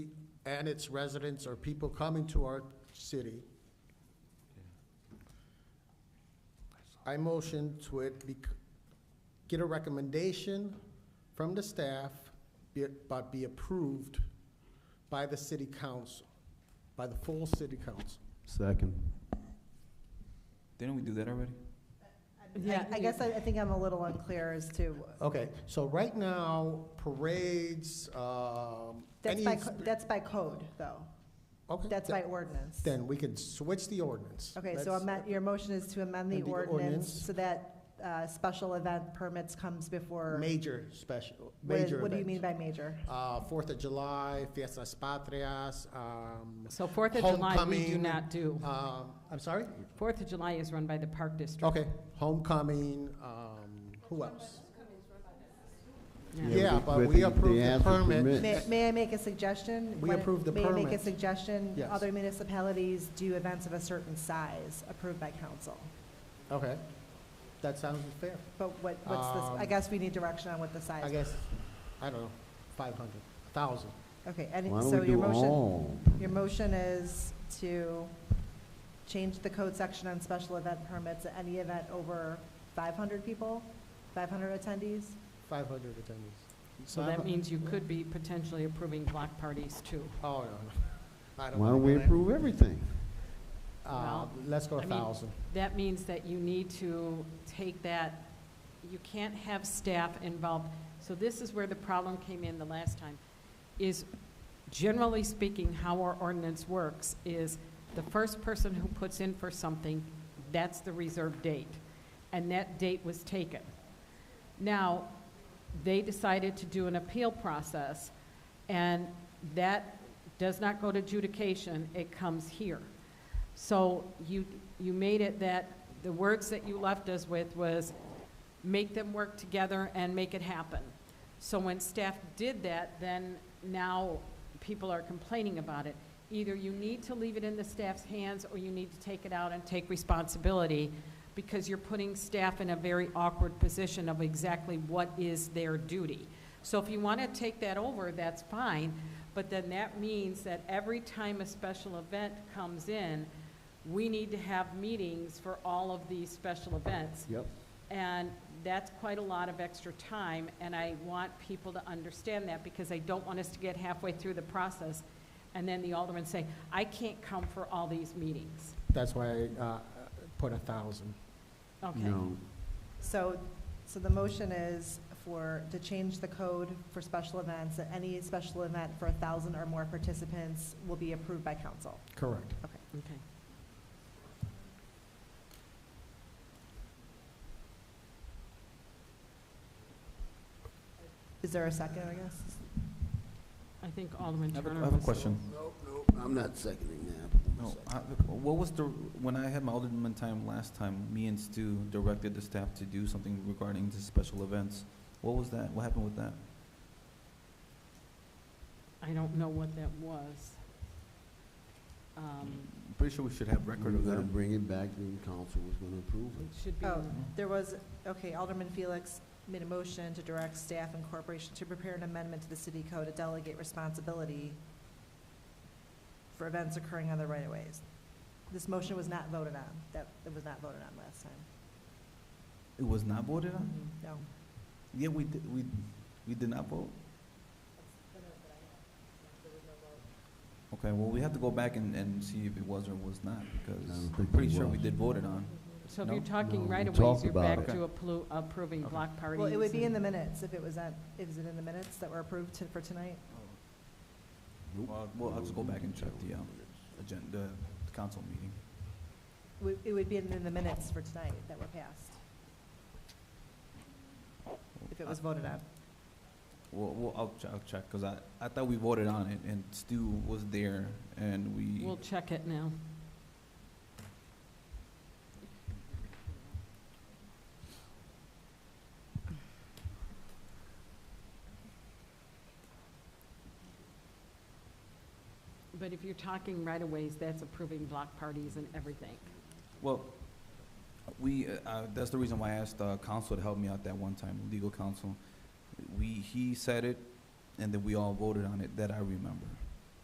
and its residents or people coming to our city. I motion to it be, get a recommendation from the staff, be it- but be approved by the city council, by the full city council. Second. Didn't we do that already? Yeah. I I guess I I think I'm a little unclear as to, Okay, so right now, parades, um. that's any by, co- exp- that's by code, though. Okay, That's th- by ordinance. Then we can switch the ordinance. Okay, so Let's- amend- your motion is to amend the Amend the ordinance. ordinance so that uh, special event permits comes before. Major special, What is- major What do you mean events. by major? Uh, Fourth of July, Fiestas Patrias, um, So Fourth of July, we do Homecoming. not do. um, I'm sorry? Fourth of July is run by the Park District. Okay, homecoming, um, who else? Yeah. Yeah, Yeah, we- but but we they- approved they the have to permit. permit. May may I make a suggestion? We Why- approve the May I make a permit. suggestion? Yes. Other municipalities do events of a certain size approved by council. Okay, that sounds fair. But what, what's Um, this, I guess we need direction on what the size. I guess, I don't know, five hundred, thousand. Okay, and Why don't so we your do motion, all? your motion is to change the code section on special event permits at any event over 500 people, 500 attendees? Five hundred attendees. So that means you could be potentially approving block parties too. Oh, no, no. I don't Why wanna don't go we there. approve everything? Uh, Well, let's go I a mean- thousand. That means that you need to take that, you can't have staff involved. So this is where the problem came in the last time, is generally speaking, how our ordinance works is the first person who puts in for something, that's the reserved date. And that date was taken. Now, they decided to do an appeal process, and that does not go to adjudication, it comes here. So you, you made it that, the words that you left us with was, make them work together and make it happen. So when staff did that, then now people are complaining about it. Either you need to leave it in the staff's hands, or you need to take it out and take responsibility, because you're putting staff in a very awkward position of exactly what is their duty. So if you want to take that over, that's fine, but then that means that every time a special event comes in, we need to have meetings for all of these special events. Yep. And that's quite a lot of extra time, and I want people to understand that, because I don't want us to get halfway through the process, and then the aldermen say, I can't come for all these meetings. That's why I, uh, put a thousand. Okay, No. So, so the motion is for, to change the code for special events, that any special event for 1,000 or more participants will be approved by council. Correct. okay. Is there a second, I guess? I think Alderman I have a- Turner I have a was- question. Nope, nope, I'm not seconding that. No, I- what was the, when I had my alderman time last time, me and Stu directed the staff to do something regarding the special events. What was that? What happened with that? I don't know what that was. Um, I'm Pretty sure we should have record We're of gonna that. bring it back, then council was gonna approve It it. should be, Oh. There was, okay, Alderman Felix made a motion to direct staff and corporation to prepare an amendment to the city code to delegate responsibility for events occurring on the right-of-ways. This motion was not voted on, that, it was not voted on last time. It was not voted on? No. Yeah, we did, we, we did not vote? Okay, well, we have to go back and, and see if it was or was not, because I don't I'm think it pretty sure we was. did vote it on. so if you're No? talking No, we right of ways, talked you're about back it. to appro- approving Okay. block parties. Well, it would be in the and- minutes if it was on, is it in the minutes that were approved to- for tonight? Well, we'll have to go back and check the, um, agenda, the council meeting. It would- It would be in the minutes for tonight that were passed. If it was voted on. Well, well, I'll, ch- I'll check, because I, I thought we voted on it, and Stu was there, and we, We'll check it now. But if you're talking right of ways, that's approving block parties and everything. well, we, uh, uh, that's the reason why I asked, uh, counsel to help me out that one time, legal counsel. We, he said it, and then we all voted on it, that I remember.